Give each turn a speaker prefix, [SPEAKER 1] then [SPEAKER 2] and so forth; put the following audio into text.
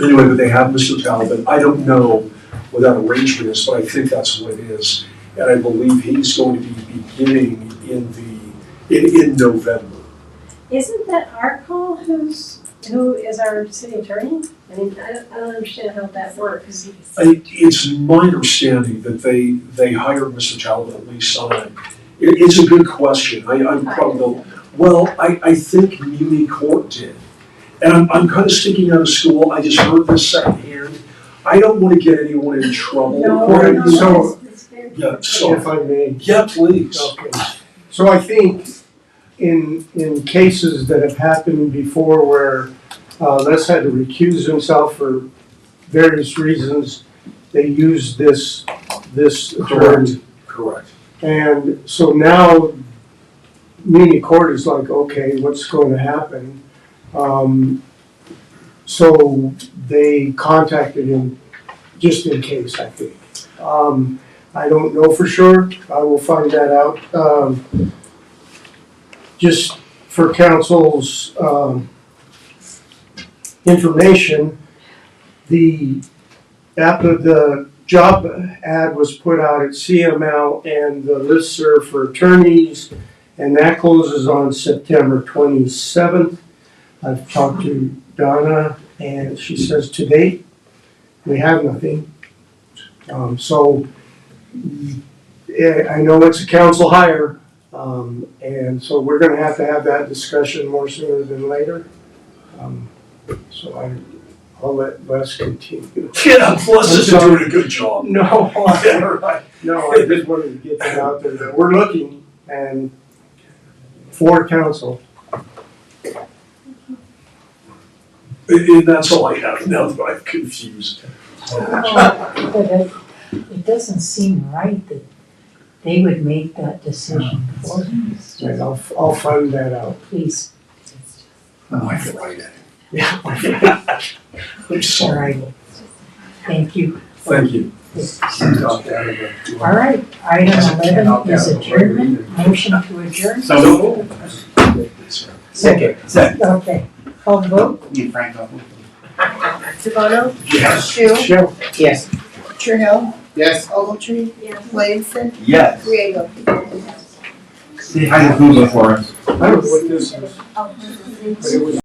[SPEAKER 1] anyway, but they have Mr. Talbot. I don't know what that arrangement is, but I think that's what it is. And I believe he's going to be beginning in the, in, in November.
[SPEAKER 2] Isn't that our call who's, who is our city attorney? I mean, I don't, I don't understand how that works.
[SPEAKER 1] I- It's my understanding that they, they hired Mr. Talbot at least on it. It, it's a good question. I, I'm probably, well, I, I think Muni Court did. And I'm, I'm kind of sticking out of school. I just heard this secondhand. I don't want to get anyone in trouble.
[SPEAKER 2] No,
[SPEAKER 1] Or-
[SPEAKER 2] no,
[SPEAKER 1] so-
[SPEAKER 2] it's- it's very-
[SPEAKER 1] Yeah, so,
[SPEAKER 3] If I may,
[SPEAKER 1] yeah, please.
[SPEAKER 3] okay. So I think in, in cases that have happened before where uh, Les had to recuse himself for various reasons, they used this, this term.
[SPEAKER 1] Correct. Correct.
[SPEAKER 3] And so now, muni court is like, okay, what's going to happen? Um, so they contacted him just in case, I think. Um, I don't know for sure, I will find that out. Um, just for council's, um, information, the, app the job ad was put out at CML and the listserv for attorneys, and that closes on September twenty-seventh. I've talked to Donna, and she says to date, we have nothing. Um, so, mm, eh, I know it's a council hire, um, and so we're gonna have to have that discussion more sooner than later. Um, So I, I'll let Les continue.
[SPEAKER 1] Yeah, plus
[SPEAKER 3] I'm
[SPEAKER 1] is
[SPEAKER 3] sorry.
[SPEAKER 1] doing a good job.
[SPEAKER 3] No,
[SPEAKER 1] Yeah, right.
[SPEAKER 3] No, I just wanted to get that out there, that we're looking and for council.
[SPEAKER 1] And, and that's all I have now that I'm confused.
[SPEAKER 4] Oh, But it, it doesn't seem right that they would make that decision for them. It's
[SPEAKER 3] Right,
[SPEAKER 4] just-
[SPEAKER 3] I'll, I'll find that out.
[SPEAKER 4] Please,
[SPEAKER 1] I feel like that.
[SPEAKER 3] Yeah.
[SPEAKER 1] I'm
[SPEAKER 4] all
[SPEAKER 1] sorry.
[SPEAKER 4] right. Thank you.
[SPEAKER 1] Thank you.
[SPEAKER 4] All right, item eleven is adjournment, motion to adjourn.
[SPEAKER 5] So,
[SPEAKER 4] Second.
[SPEAKER 5] Second.
[SPEAKER 4] Okay, call the vote.
[SPEAKER 5] Ian Franco.
[SPEAKER 6] Devoto,
[SPEAKER 5] Yes.
[SPEAKER 6] Shu,
[SPEAKER 3] Sure.
[SPEAKER 4] Yes.
[SPEAKER 6] Trahell,
[SPEAKER 5] Yes.
[SPEAKER 6] Ogletree,
[SPEAKER 2] Yeah.
[SPEAKER 6] Williamson,
[SPEAKER 5] Yes.
[SPEAKER 6] Riego.
[SPEAKER 5] Say hi to Google for us.
[SPEAKER 3] I don't know what this is,
[SPEAKER 2] Oh, this is-
[SPEAKER 3] but it was